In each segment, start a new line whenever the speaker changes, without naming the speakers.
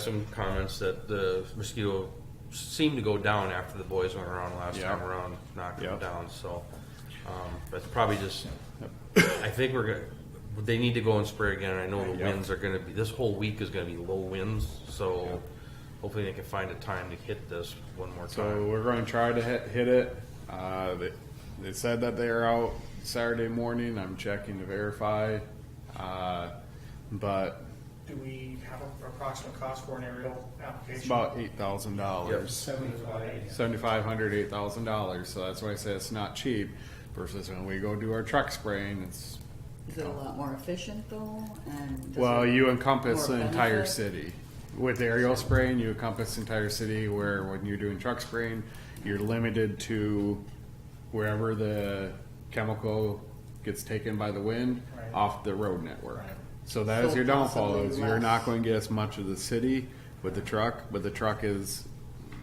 some comments that the mosquito seemed to go down after the boys went around last
Yeah.
time around, knocking them
Yeah.
down, so. Um, that's probably just, I think we're gonna, they need to go and spray again, I know the
Yeah.
winds are gonna be, this whole week is gonna be low winds, so hopefully they can find a time to hit this one more
So
time.
we're going to try to hit, hit it. Uh, they, they said that they are out Saturday morning. I'm checking to verify. Uh, but
Do we have an approximate cost for an aerial application?
it's about $8,000.
Seventy-five.
$7,500, $8,000. So that's why I say it's not cheap versus when we go do our truck spraying. It's,
Is it a lot more efficient though? And does
well,
it-
you encompass
more
the entire
benefit?
city. With aerial spraying, you encompass the entire city where when you're doing truck spraying, you're limited to wherever the chemical gets taken by the wind
Right.
off the road network.
Right.
So that is
So
your downfall
possibly
is you're not
less.
going to get as much of the city with the truck, but the truck is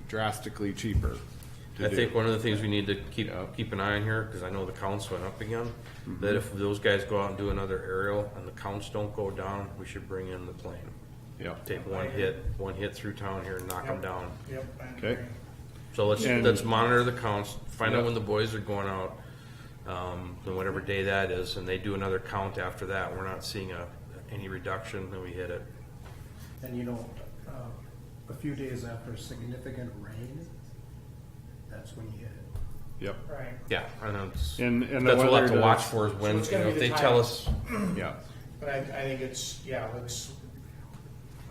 drastically cheaper. to
I
do.
think one of the things we need to keep,
Yeah.
keep an eye on here, cause I know the counts went up again,
Mm-hmm.
that if those guys go out and do another aerial and the counts don't go down, we should bring in the plane.
Yep.
Take one hit, one hit through town here and knock them down.
Yep. I
Okay.
agree.
So let's,
And-
let's monitor the counts, find out
Yeah.
when the boys are going out, um, and whatever day that is, and they do another count after that, we're not seeing a, any reduction, then we hit it.
And you know, um, a few days after significant rain, that's when you hit it.
Yep.
Right.
Yeah, and that's,
And- and the
that's what we'll have
weather
to watch
does-
for is when, you
it's gonna
know,
be
if
the
they
time.
tell us,
Yep.
But I, I think it's, yeah, let's,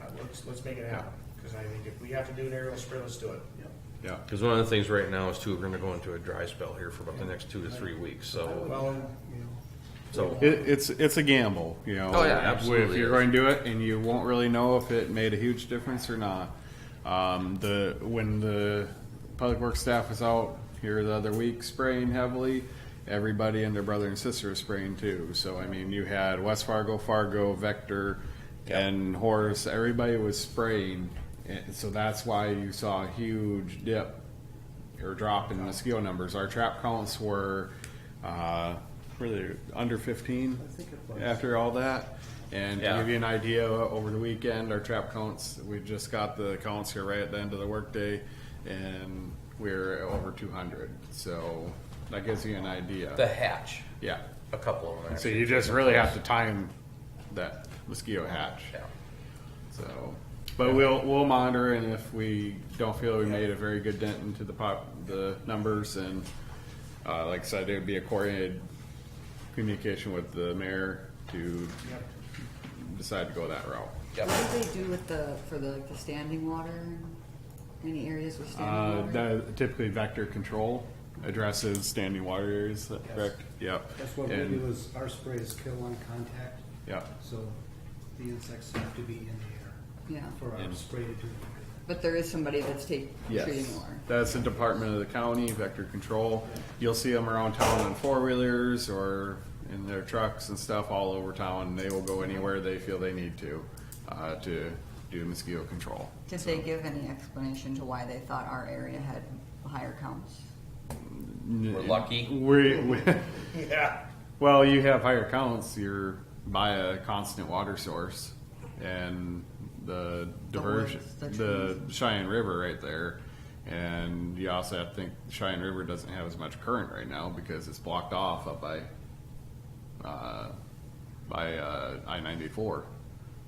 uh, let's, let's make it happen, because I think if we have to do an aerial spray, let's do it.
Yep.
cause one of the things right now is too, we're gonna go into a dry spell here for about the next two to three weeks, so,
Well, and, you know,
so.
It, it's it's a gamble, you know.
Oh, yeah,
If- If
absolutely
you're
is.
going to do it, and you won't really know if it made a huge difference or not. Um, the when the public works staff was out here the other week spraying heavily, everybody and their brother and sister was spraying too. So I mean, you had West Fargo, Fargo, Vector, and Horace. Everybody was spraying, and so that's why you saw a huge dip or drop in mosquito numbers. Our trap counts were uh, really under 15
I think it was.
after all that. And to
Yeah.
give you an idea, over the weekend, our trap counts, we just got the counts here right at the end of the workday, and we're over 200. So that gives you an idea.
The hatch,
yeah.
a couple of them.
So
actually.
you just really have to time that mosquito hatch.
Yeah.
So, but we'll, we'll monitor and if we don't feel we made a very good dent into the pop, the numbers and, uh, like I said, it would be a coordinated communication with the mayor to
yep.
decide to go that route.
What do they do with the, for the, like, the standing water? and Any areas with
Uh,
standing water?
that typically vector control addresses standing water areas, is that
Yes.
correct? Yep.
That's what we
And-
do is our sprays kill on contact.
Yep.
So the insects have to be in the
Yeah,
air for our
And-
spray to do.
but there is somebody that's taking, treating
Yes,
water.
that's the department of the county, vector control. You'll see them around town on four-wheelers or in their trucks and stuff all over town. They will go anywhere they feel they need to, uh, to do mosquito control.
Did they give any explanation to why they thought our area had higher counts?
We're lucky.
We, we,
Yeah,
well, you have higher counts, you're by a constant water source and the diversion,
woods,
the
the
Cheyenne River right there. And you also have to think Cheyenne River doesn't have as much current right now because it's blocked off up by uh, by uh, I ninety four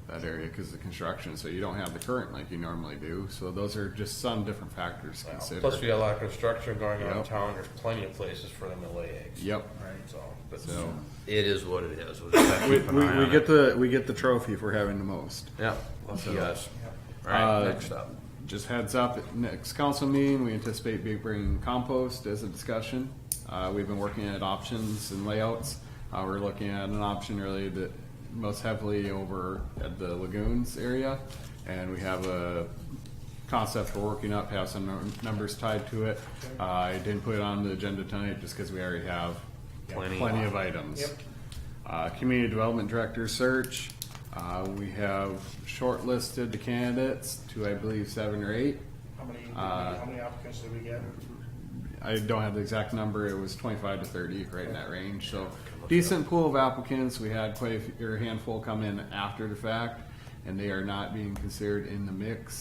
that area because of construction, so you don't have the current like you normally do. So those are just some different factors considered.
Plus, we got a lot of construction going on in
Yep.
town, there's plenty of places for them to lay eggs.
Yep.
Right, so, but
So-
it is what it is. We'll just have to
We,
keep an
we,
eye
we
on
get
it.
the we get the trophy for having the most.
Yeah, lucky us. All
Uh,
right, next up.
Just heads up, next council meeting, we anticipate be bringing compost as a discussion. Uh, we've been working at options and layouts. Uh, we're looking at an option really that most heavily over at the lagoons area. And we have a concept we're working up, have some num- numbers tied to it. Uh, I didn't put it on the agenda tonight just because we already have
Plenty.
plenty of items.
Yep.
Uh, Community Development Director search, uh, we have shortlisted the candidates to, I believe, seven or eight.
how many,
Uh,
how many applicants did we get?
I don't have the exact number, it was twenty-five to thirty, right in that range, so decent pool of applicants, we had quite a few- or a handful come in after the fact. and they are not being considered in the mix